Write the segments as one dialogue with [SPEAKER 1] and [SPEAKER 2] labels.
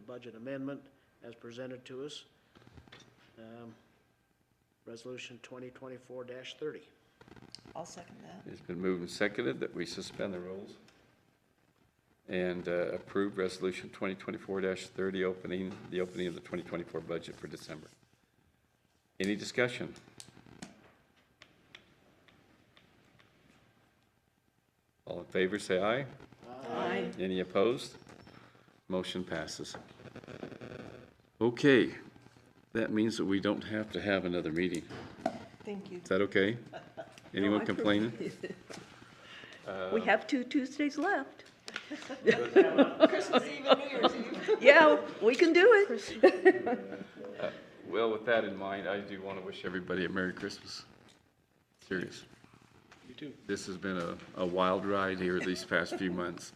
[SPEAKER 1] budget amendment as presented to us. Um, Resolution 2024-30.
[SPEAKER 2] I'll second that.
[SPEAKER 3] It's been moved and seconded that we suspend the rules and uh, approve Resolution 2024-30, opening, the opening of the 2024 budget for December. Any discussion? All in favor, say aye.
[SPEAKER 2] Aye.
[SPEAKER 3] Any opposed? Motion passes. Okay, that means that we don't have to have another meeting.
[SPEAKER 2] Thank you.
[SPEAKER 3] Is that okay? Anyone complaining?
[SPEAKER 4] We have two Tuesdays left.
[SPEAKER 2] Christmas Eve and New Year's Eve.
[SPEAKER 4] Yeah, we can do it.
[SPEAKER 3] Well, with that in mind, I do want to wish everybody a Merry Christmas. Serious.
[SPEAKER 1] You too.
[SPEAKER 3] This has been a, a wild ride here these past few months,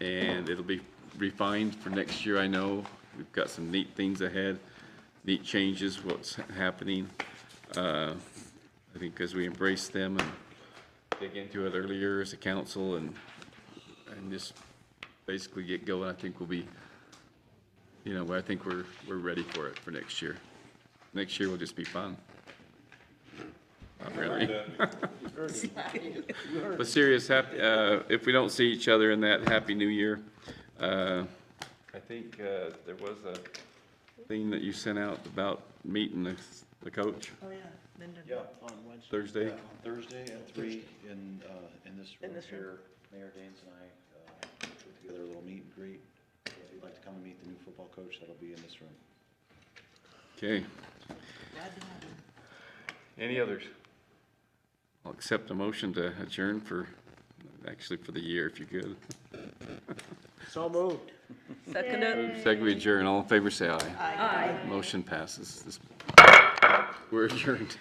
[SPEAKER 3] and it'll be refined for next year, I know. We've got some neat things ahead, neat changes, what's happening. Uh, I think as we embrace them and dig into it earlier as a council and, and just basically get going, I think we'll be, you know, I think we're, we're ready for it for next year. Next year will just be fun. Not really. But serious, hap- uh, if we don't see each other in that, Happy New Year. Uh, I think uh, there was a thing that you sent out about meeting the the coach
[SPEAKER 2] Oh, yeah. Linda.
[SPEAKER 5] Yeah,
[SPEAKER 1] On Wednesday.
[SPEAKER 3] Thursday.
[SPEAKER 5] on Thursday at three in, uh, in this room
[SPEAKER 2] this room.
[SPEAKER 5] here, Mayor Danes and I, uh, put together a little meet and greet. If you'd like to come and meet the new football coach, that'll be in this room.
[SPEAKER 3] Okay.
[SPEAKER 2] Glad to have you.
[SPEAKER 3] Any others? I'll accept a motion to adjourn for, actually for the year, if you could.
[SPEAKER 1] So moved.
[SPEAKER 4] Second uh, it.
[SPEAKER 3] Second we adjourn, all in favor, say aye.
[SPEAKER 4] Aye.
[SPEAKER 3] Motion passes. This- We're adjourned.